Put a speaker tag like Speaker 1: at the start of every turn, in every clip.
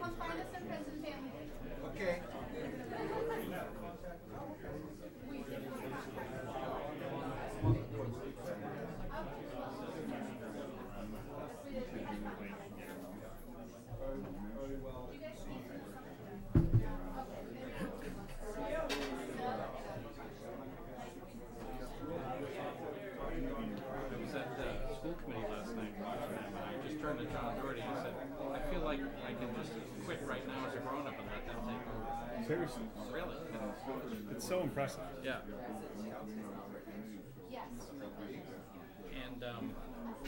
Speaker 1: Come find us in Friends and Family.
Speaker 2: Okay.
Speaker 3: I was at the school committee last night, watching them, and I just turned to John Doherty and said, I feel like I can just quit right now as a grown-up and let them take over.
Speaker 4: Seriously.
Speaker 3: Really?
Speaker 4: It's so impressive.
Speaker 3: Yeah.
Speaker 1: Yes.
Speaker 3: And um,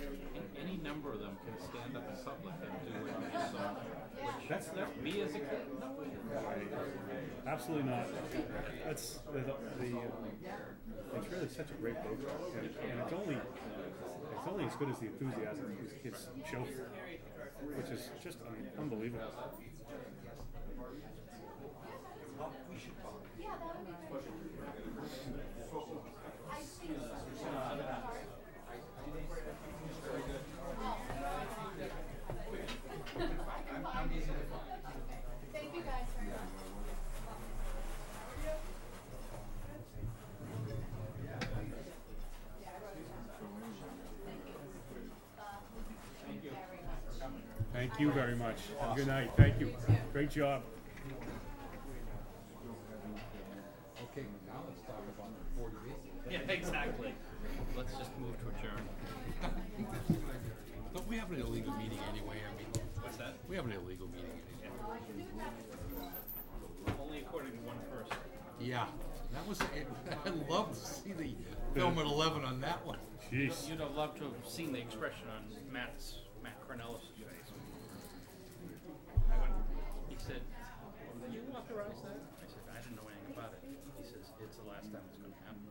Speaker 3: a- any number of them can stand up in public and do what you saw. Which,
Speaker 4: That's
Speaker 3: no, me as a kid, no way.
Speaker 4: Absolutely not. That's the, the, the uh, it's really such a great book, and, and it's only it's only as good as the enthusiasm these kids show, for it, which is just I mean, unbelievable.
Speaker 1: Yeah, that would be great. I think so. Thank you guys very much. Yeah, I wrote it down. Thank you. Bob, Thank you very much.
Speaker 4: Thank you very much. Have a good night. Thank you. Great job.
Speaker 2: Okay, now let's talk about forty B.
Speaker 3: Yeah, exactly. Let's just move to adjourn.
Speaker 5: But we have an illegal meeting anyway. I mean,
Speaker 3: What's that?
Speaker 5: we have an illegal meeting anyway.
Speaker 3: Only according to one person.
Speaker 5: Yeah, that was. I'd love to see the film at eleven on that one.
Speaker 4: Jeez.
Speaker 3: You'd have loved to have seen the expression on Matt's, Matt Cornellis' face. I went, he said, you authorized that? I said, I didn't know anything about it. He says, it's the last time it's gonna happen.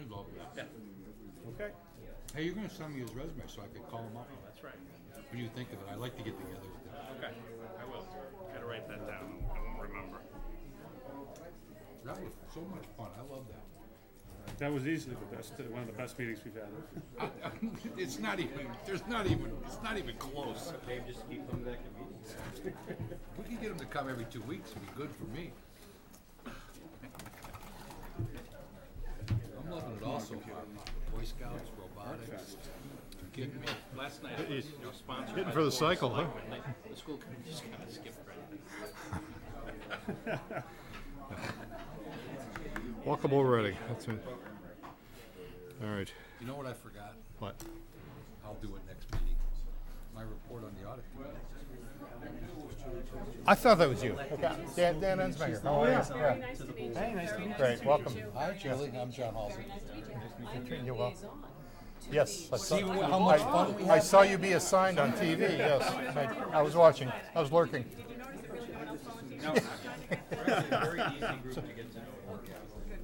Speaker 5: I'd love that.
Speaker 3: Yeah,
Speaker 4: Okay.
Speaker 5: Hey, you're gonna send me his resume so I could call him up.
Speaker 3: that's right.
Speaker 5: What do you think of it? I'd like to get together with him.
Speaker 3: Okay, I will. Gotta write that down. I won't remember.
Speaker 5: That was so much fun. I love that.
Speaker 4: That was easily the best, one of the best meetings we've had.
Speaker 5: it's not even. There's not even. It's not even close.
Speaker 3: Dave, just keep coming back to meetings.
Speaker 5: We could get him to come every two weeks. It'd be good for me. I'm loving it also. Boy Scouts, robotics. You kidding me?
Speaker 3: Last night, it was, you know, sponsored by
Speaker 6: for the
Speaker 3: Board of
Speaker 6: cycle, huh?
Speaker 3: Selectmen. They- The school committee just kinda skipped right there.
Speaker 6: Welcome already. That's it. All right.
Speaker 5: You know what I forgot?
Speaker 6: What?
Speaker 5: I'll do it next meeting. My report on the audit. committee.
Speaker 6: I thought that was you. Okay. Dan, Dan Ensminger. How are you? Yeah.
Speaker 7: Very nice to meet you.
Speaker 6: Hey, nice to
Speaker 7: Very
Speaker 6: meet you. Great,
Speaker 7: to
Speaker 6: welcome.
Speaker 7: meet you.
Speaker 5: Hi, Julie. I'm John Halsey.
Speaker 7: Very nice to meet you. I'm your
Speaker 6: You're welcome.
Speaker 7: liaison to
Speaker 6: Yes. I
Speaker 7: the-
Speaker 6: saw,
Speaker 5: how much fun we
Speaker 6: I, I saw you be assigned on TV. Yes. I, I was watching. I was lurking.
Speaker 7: Did you notice that really no one else volunteered?
Speaker 3: Very easy group to get to know.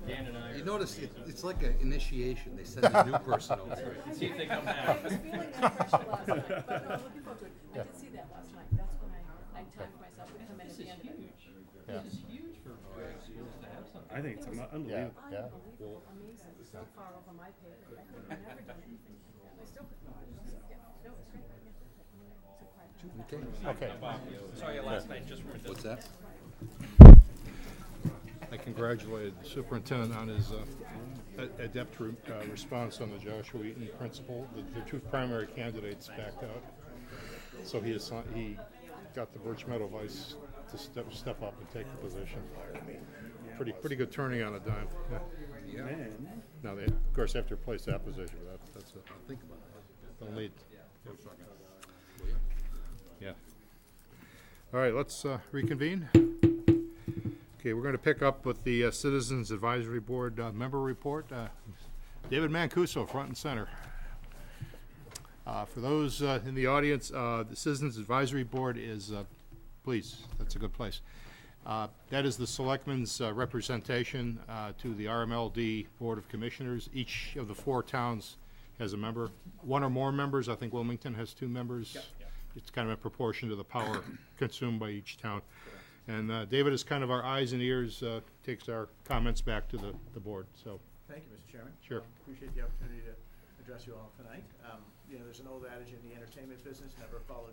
Speaker 3: Dan and I
Speaker 5: You notice it, it's like an initiation. They send a new person over.
Speaker 3: See if they come
Speaker 7: I
Speaker 3: back.
Speaker 7: was feeling that pressure last night, but no, I'm looking forward to it. I did see that last night. That's when I, I timed myself to come in at the end of it.
Speaker 6: Yeah.
Speaker 3: This is huge for Verizon to have something.
Speaker 4: I think it's un- unbelievable.
Speaker 6: Yeah.
Speaker 7: Unbelievable, amazing, so far over my pay grade. I could have never done anything like that. I still could not. Yeah, no, it's great. Yeah. So quiet.
Speaker 5: Okay.
Speaker 6: Okay.
Speaker 3: Bob, saw you last night just from a distance.
Speaker 5: What's that?
Speaker 6: I congratulated the superintendent on his uh, a- adept re- uh, response on the Joshua Eaton principle. The, the two primary candidates backed out, so he assi- he got the Birch Meadow Vice to step step up and take the position. Pretty pretty good turning on a dime. Yeah.
Speaker 4: Man.
Speaker 6: Now they of course have to replace that position. but That, that's a,
Speaker 5: Think about it.
Speaker 6: they'll need.
Speaker 5: Will you?
Speaker 6: Yeah. All right, let's uh, reconvene. Okay, we're going to pick up with the uh, Citizens Advisory Board uh, member report. Uh, David Mancuso, front and center. Uh, For those uh, in the audience, uh, the Citizens Advisory Board is, uh, please, that's a good place. Uh, That is the selectmen's uh, representation uh, to the RMLD Board of Commissioners. Each of the four towns has a member, one or more members. I think Wilmington has two members. It's kind of in proportion to the power consumed by each town. And uh, David is kind of our eyes and ears, uh, takes our comments back to the, the board, so,
Speaker 8: Thank you, Mr. Chairman.
Speaker 6: Sure.
Speaker 8: Um, Appreciate the opportunity to address you all tonight. Um, You know, there's an old adage in the entertainment business, never follow